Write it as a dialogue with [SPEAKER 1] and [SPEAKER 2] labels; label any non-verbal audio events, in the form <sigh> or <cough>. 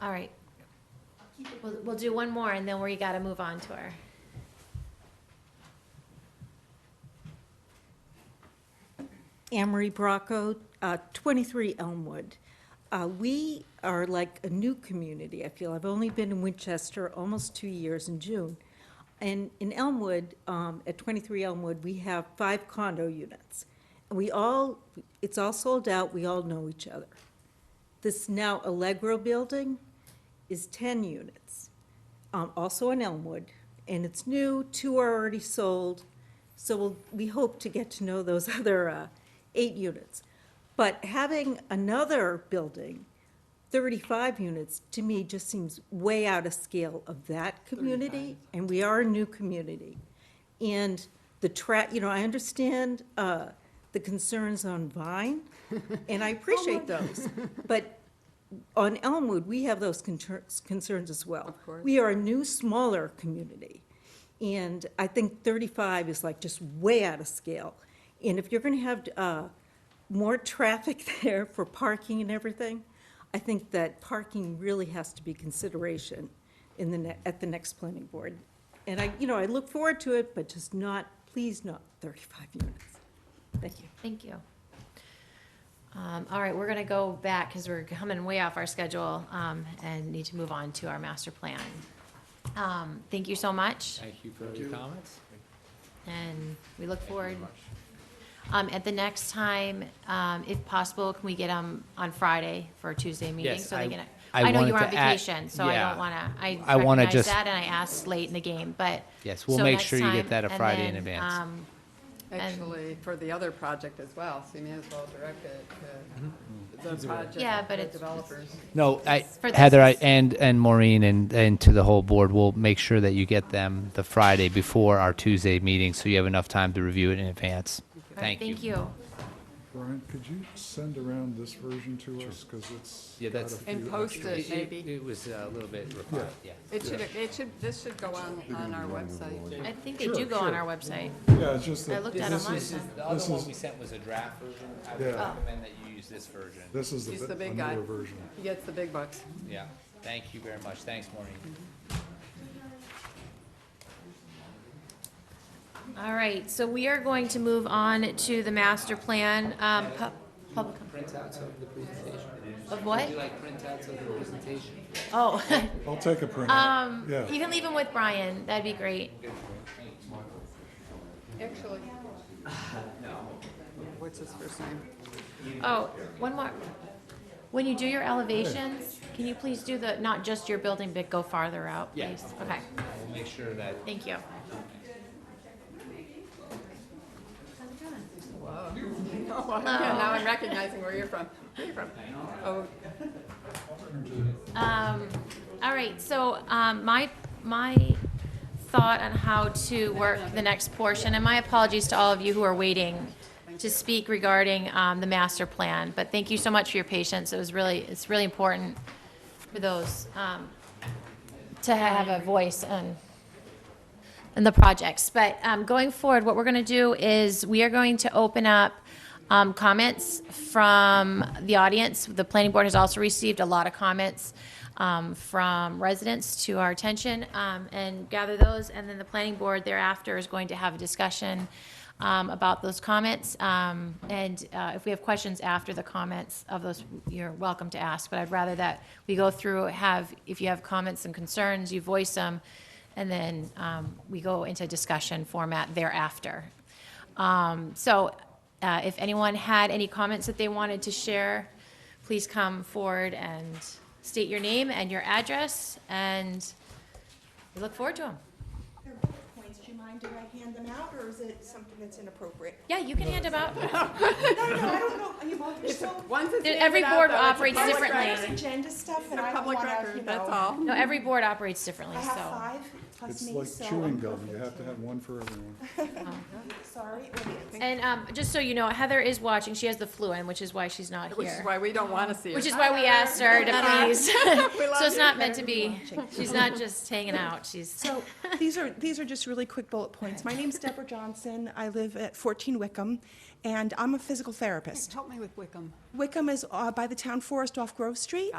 [SPEAKER 1] All right. We'll, we'll do one more and then we gotta move on to our.
[SPEAKER 2] Amory Bracco, uh, 23 Elmwood. Uh, We are like a new community, I feel. I've only been in Winchester almost two years in June. And in Elmwood, um, at 23 Elmwood, we have five condo units. And We all, it's all sold out, we all know each other. This now Allegro building is 10 units, um, also in Elmwood, and it's new, two are already sold. So we'll, we hope to get to know those <laughs> other uh, eight units. But having another building, 35 units, to me just seems way out of scale of that community, and we are a new community. And the tra, you know, I understand uh, the concerns on Vine, and I appreciate those. <laughs> But on Elmwood, we have those concerns, concerns as well. Of course. We are a new, smaller community, and I think thirty-five is like just way out of scale. And if you're gonna have, uh, more traffic <laughs> there for parking and everything, I think that parking really has to be consideration in the ne- at the next planning board. And I, you know, I look forward to it, but just not, please not thirty-five units. Thank you.
[SPEAKER 1] Thank you. Um, all right, we're gonna go back because we're coming way off our schedule, um, and need to move on to our master plan. Um, thank you so much
[SPEAKER 3] Thank you for your comments.
[SPEAKER 1] and we look forward.
[SPEAKER 3] Very much.
[SPEAKER 1] Um, at the next time, um, if possible, can we get them on Friday for a Tuesday meeting?
[SPEAKER 3] Yes,
[SPEAKER 1] so they
[SPEAKER 3] I-
[SPEAKER 1] can-
[SPEAKER 3] I
[SPEAKER 1] I know you
[SPEAKER 3] wanted
[SPEAKER 1] were on
[SPEAKER 3] to add-
[SPEAKER 1] vacation, so I
[SPEAKER 3] yeah.
[SPEAKER 1] don't wanna, I
[SPEAKER 3] I wanna
[SPEAKER 1] recognize
[SPEAKER 3] just-
[SPEAKER 1] that and I asked late in the game, but.
[SPEAKER 3] Yes, we'll
[SPEAKER 1] so
[SPEAKER 3] make
[SPEAKER 1] next
[SPEAKER 3] sure you get
[SPEAKER 1] time,
[SPEAKER 3] that a
[SPEAKER 1] and
[SPEAKER 3] Friday in
[SPEAKER 1] then,
[SPEAKER 3] advance.
[SPEAKER 1] um, And-
[SPEAKER 4] Actually, for the other project as well, so you may as well direct it to
[SPEAKER 1] Yeah,
[SPEAKER 4] the
[SPEAKER 1] but
[SPEAKER 4] project, the
[SPEAKER 1] it's-
[SPEAKER 4] developers.
[SPEAKER 3] No, I,
[SPEAKER 1] for this
[SPEAKER 3] Heather, I,
[SPEAKER 1] is-
[SPEAKER 3] and, and Maureen, and, and to the whole board, we'll make sure that you get them the Friday before our Tuesday meeting, so you have enough time to review it in advance.
[SPEAKER 1] all right,
[SPEAKER 3] Thank you.
[SPEAKER 1] Thank you.
[SPEAKER 5] Brian, could you send around this version to us, because it's
[SPEAKER 3] Yeah,
[SPEAKER 5] got a
[SPEAKER 3] that's-
[SPEAKER 5] few
[SPEAKER 4] And post
[SPEAKER 5] extras.
[SPEAKER 4] it, maybe.
[SPEAKER 3] was a little bit refined, yeah.
[SPEAKER 4] It should, it should, this should go on, on our website.
[SPEAKER 1] I think they do go on our website.
[SPEAKER 5] Yeah, it's just
[SPEAKER 1] I
[SPEAKER 5] that,
[SPEAKER 1] looked at them
[SPEAKER 5] this
[SPEAKER 1] last
[SPEAKER 5] is,
[SPEAKER 1] time.
[SPEAKER 3] the
[SPEAKER 5] other one we
[SPEAKER 3] sent was a draft version. I
[SPEAKER 5] would Yeah.
[SPEAKER 3] that you use this version.
[SPEAKER 5] this is
[SPEAKER 4] He's
[SPEAKER 5] the
[SPEAKER 4] the
[SPEAKER 5] bit-
[SPEAKER 4] big
[SPEAKER 5] a
[SPEAKER 4] guy.
[SPEAKER 5] newer version.
[SPEAKER 4] He gets the big bucks.
[SPEAKER 3] Yeah, thank you very much. Thanks, Maureen.
[SPEAKER 1] All right, so we are going to move on to the master plan, um, pub, public. Of what? Oh, <laughs>
[SPEAKER 5] I'll take a
[SPEAKER 6] Ah,
[SPEAKER 5] printout,
[SPEAKER 1] you
[SPEAKER 5] yeah.
[SPEAKER 1] can leave them with Brian, that'd be great.
[SPEAKER 4] Actually. What's his first name?
[SPEAKER 1] Oh, one more. When you do your elevations, can you please do the, not just your building, but go farther out,
[SPEAKER 3] Yeah,
[SPEAKER 1] please? Okay,
[SPEAKER 3] We'll make sure that
[SPEAKER 1] thank you.
[SPEAKER 4] <laughs> Oh, yeah, Now I'm recognizing where you're from. Where you from? Oh,
[SPEAKER 1] Um, all right, so, um, my, my thought on how to work the next portion, and my apologies to all of you who are waiting to speak regarding, um, the master plan, but thank you so much for your patience, it was really, it's really important for those, um, to have a voice and and the projects. But um, going forward, what we're going to do is we are going to open up um, comments from the audience. The planning board has also received a lot of comments um, from residents to our attention um, and gather those. And then the planning board thereafter is going to have a discussion um, about those comments. Um, and uh, if we have questions after the comments of those, you're welcome to ask. But I'd rather that we go through, have, if you have comments and concerns, you voice them. And then um, we go into discussion format thereafter. Um, So uh, if anyone had any comments that they wanted to share, please come forward and state your name and your address, and we look forward to them.
[SPEAKER 6] They're bullet points, do you mind if I hand them out, or is it something that's inappropriate?
[SPEAKER 1] Yeah, you can hand them
[SPEAKER 6] <laughs>
[SPEAKER 1] out.
[SPEAKER 6] No, no, I don't know, you know, there's so
[SPEAKER 4] Once it's
[SPEAKER 1] There- every
[SPEAKER 4] handed out,
[SPEAKER 1] board
[SPEAKER 4] though, it's a
[SPEAKER 1] operates
[SPEAKER 4] public
[SPEAKER 1] differently.
[SPEAKER 4] record.
[SPEAKER 6] much agenda stuff,
[SPEAKER 4] It's
[SPEAKER 6] and I
[SPEAKER 4] a
[SPEAKER 6] don't
[SPEAKER 4] public
[SPEAKER 6] wanna, you
[SPEAKER 4] record, that's
[SPEAKER 6] know.
[SPEAKER 4] all.
[SPEAKER 1] No, every board operates differently,
[SPEAKER 6] I have
[SPEAKER 1] so.
[SPEAKER 6] five plus
[SPEAKER 5] It's
[SPEAKER 6] me,
[SPEAKER 5] like
[SPEAKER 6] so
[SPEAKER 5] chewing
[SPEAKER 6] I'm
[SPEAKER 5] gum, you
[SPEAKER 6] perfect.
[SPEAKER 5] have to have one for everyone.
[SPEAKER 6] Sorry, audience.
[SPEAKER 1] And um, just so you know, Heather is watching. She has the flu, and which is why she's not
[SPEAKER 4] Which is
[SPEAKER 1] here.
[SPEAKER 4] why we don't want to see it.
[SPEAKER 1] Which is why we asked
[SPEAKER 6] <laughs>
[SPEAKER 1] her to please.
[SPEAKER 4] We love
[SPEAKER 1] <laughs> So it's
[SPEAKER 4] you.
[SPEAKER 1] not meant to be. She's not just hanging out. She's,
[SPEAKER 6] So, these are, these are just really quick bullet points. My name's Deborah Johnson, I live at 14 Wickham, and I'm a physical therapist.
[SPEAKER 4] Help me with Wickham.
[SPEAKER 6] Wickham is uh, by the town forest off Grove Street.